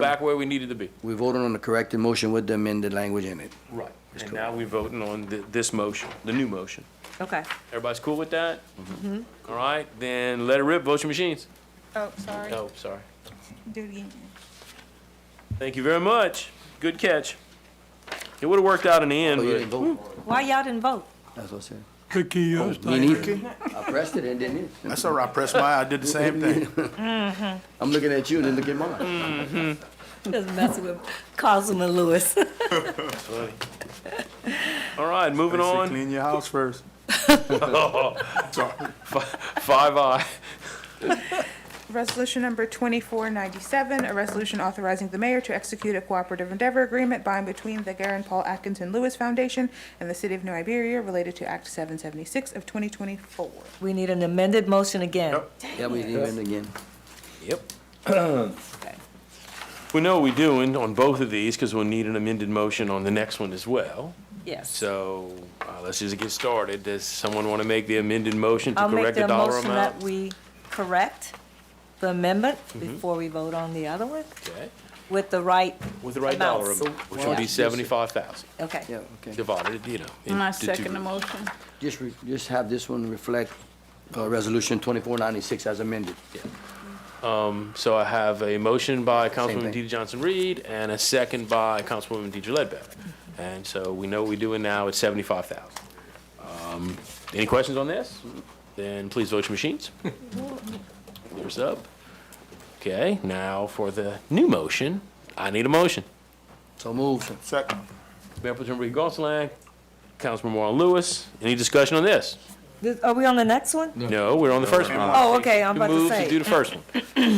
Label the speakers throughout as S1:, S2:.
S1: back where we needed to be.
S2: We voted on the corrected motion with the amended language in it.
S1: Right. And now we're voting on th- this motion, the new motion.
S3: Okay.
S1: Everybody's cool with that?
S3: Mm-hmm.
S1: All right, then let it rip, vote your machines.
S4: Oh, sorry.
S1: Oh, sorry.
S4: Do it again.
S1: Thank you very much. Good catch. It would've worked out in the
S2: Oh,
S1: end,
S2: you
S1: but.
S2: didn't vote?
S3: Why y'all didn't vote?
S2: That's what I said.
S5: Cookie, you was
S2: Me
S5: thinking.
S2: neither. I pressed it and didn't it?
S6: That's all right, I pressed my, I did the same thing.
S3: Mm-hmm.
S2: I'm looking at you and then look at mine.
S3: Just messing with Councilman Lewis.
S1: Oh, All right, moving
S6: They said
S1: on.
S6: Clean your house first.
S1: Five I.
S4: Resolution number 2497, a resolution authorizing the mayor to execute a cooperative endeavor agreement by and between the Garen Paul Atkinson Lewis Foundation and the City of New Iberia related to Act 776 of 2024.
S3: We need an amended motion again.
S2: Yeah, we didn't amend again.
S1: We know what we're doing on both of these, because we'll need an amended motion on the next one as well.
S3: Yes.
S1: So, uh, let's just get started. Does someone wanna make the amended motion to
S3: I'll make
S1: correct the
S3: the
S1: dollar
S3: motion that
S1: amount? Mm-hmm.
S3: we correct the amendment before we vote on the other one
S1: Okay.
S3: with the right,
S1: With the right
S3: Amount.
S1: dollar amount, which
S2: Well,
S1: would be
S2: yeah.
S1: seventy-five thousand,
S3: okay.
S2: Yeah, okay.
S1: divided, you know.
S7: And I
S1: into two
S7: second the
S1: groups.
S7: motion.
S2: Just, re- just have this one reflect, uh, resolution twenty-four ninety-six as amended.
S1: So I have a motion by Councilwoman
S2: thing.
S1: Deidre Johnson-Reed and a second by Councilwoman Deidre Ledbetter. And so we know what we're doing now, it's seventy-five thousand. Um, Any questions on this? Then please vote your machines. Thumbs up. Okay, now for the new motion, I need a motion.
S2: So moved.
S6: Second.
S1: Mayor Pro Tem Ricky Gonsalas, Councilman Marlon Lewis, any discussion on this?
S3: This- Are we on the next one?
S1: No, we're on the first one.
S3: Oh, okay, I'm
S1: Who
S3: about to
S1: moves do
S3: say.
S1: the first one.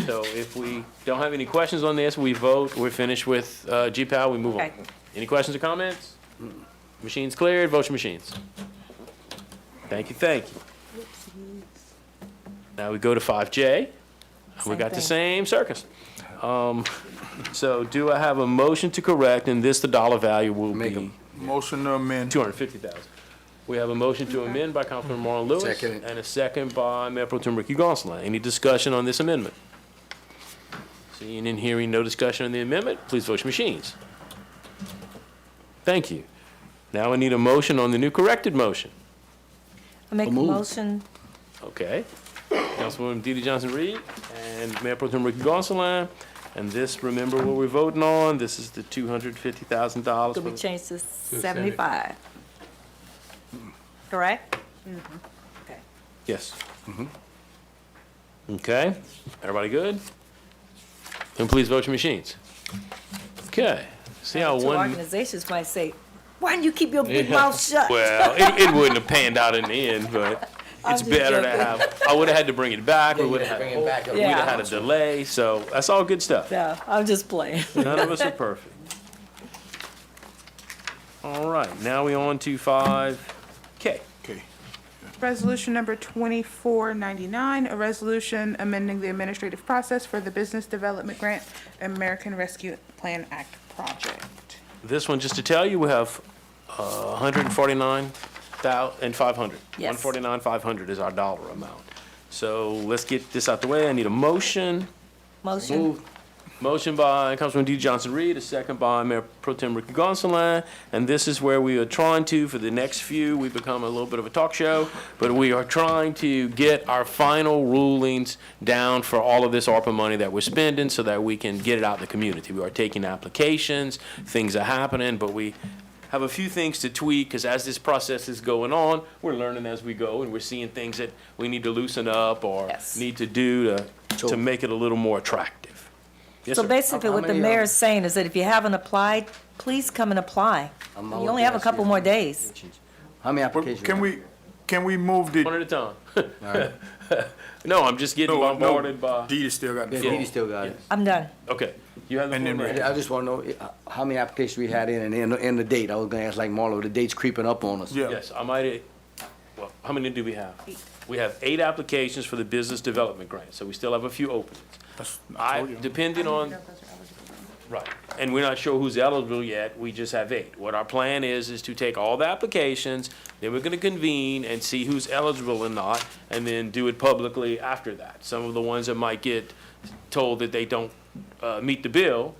S1: So if we don't have any questions on this, we vote, we're finished with uh, G-PAL, we move on.
S3: Okay.
S1: Any questions or comments? Machines cleared, vote your machines. Thank you, thank you. Now we go to 5J. We
S3: Same
S1: got the same
S3: thing.
S1: circus. Um, So do I have a motion to correct, and this, the dollar value will
S2: Make 'em.
S1: be
S6: Motion to amend.
S1: 250,000. We have a motion to amend by Councilman Marlon Lewis
S2: Second.
S1: and a second by Mayor Pro Tem Ricky Gonsalas. Any discussion on this amendment? Seeing and hearing no discussion on the amendment, please vote your machines. Thank you. Now I need a motion on the new corrected motion.
S3: I make a
S2: moved.
S3: motion,
S1: Okay. Councilwoman DeeDee Johnson-Reed and Mayor Pro Tem Ricky Gonsalas. And this, remember what we're voting on? This is the $250,000.
S3: did we
S1: for-
S3: change to seventy-five? Correct? Okay.
S1: Yes. Okay, everybody good? And please vote your machines. Okay, see how
S3: Two
S1: one,
S3: organizations might say, why don't you keep your big mouth shut?
S1: well, it, it wouldn't have panned out in the end, but
S3: I'm
S1: it's
S3: just
S1: better to
S3: joking.
S1: have, I would've had to bring it back, we would've had,
S2: Bring
S1: we'd
S2: it back up.
S3: Yeah.
S1: have had a delay, so that's all good stuff.
S3: No, I'm just playing.
S1: None of us are perfect. All right, now we on to five K.
S6: Okay.
S4: Resolution number 2499, a resolution amending the administrative process for the Business Development Grant American Rescue Plan Act project.
S1: This one, just to tell you, we have uh, 149,500.
S3: Yes.
S1: 149,500 is our dollar amount. So let's get this out the way. I need a motion.
S3: Motion,
S2: Moved.
S1: Motion by Councilman D. Johnson Reed, a second by Mayor Pro Tem Ricky Gonsalas. And this is where we are trying to, for the next few, we become a little bit of a talk show, but we are trying to get our final rulings down for all of this ARPA money that we're spending so that we can get it out in the community. We are taking applications, things are happening, but we have a few things to tweak because as this process is going on, we're learning as we go and we're seeing things that we need to loosen up or
S3: Yes.
S1: need to do to, to
S2: So-
S1: make it a little more attractive. Yes,
S3: so
S1: sir.
S3: basically
S2: How- how
S3: what the
S2: many, um,
S3: mayor's saying is that if you haven't applied, please come and apply.
S2: I'm out
S3: You only have a
S2: there,
S3: couple
S2: see.
S3: more days.
S2: How many
S6: Well,
S2: applications?
S6: Can we, can we move
S1: One
S6: the?
S1: at a time. No, I'm just getting bombarded by,
S6: Deedee still got the
S2: Yeah,
S6: floor.
S2: Didi still got it.
S3: I'm done.
S1: okay. You have the
S6: And
S1: floor
S6: then
S1: now.
S6: we-
S2: I just wanna know uh, how many applications we had in and, and- and the date. I was gonna ask like Marlo, the date's creeping up on us.
S6: Yeah.
S1: Yes, I might, well, how many do we have? We have eight applications for the business development grant, so we still have a few openings. I, depending on, right, and we're not sure who's eligible yet, we just have eight. What our plan is, is to take all the applications, then we're gonna convene and see who's eligible or not, and then do it publicly after that. Some of the ones that might get told that they don't, uh, meet the bill,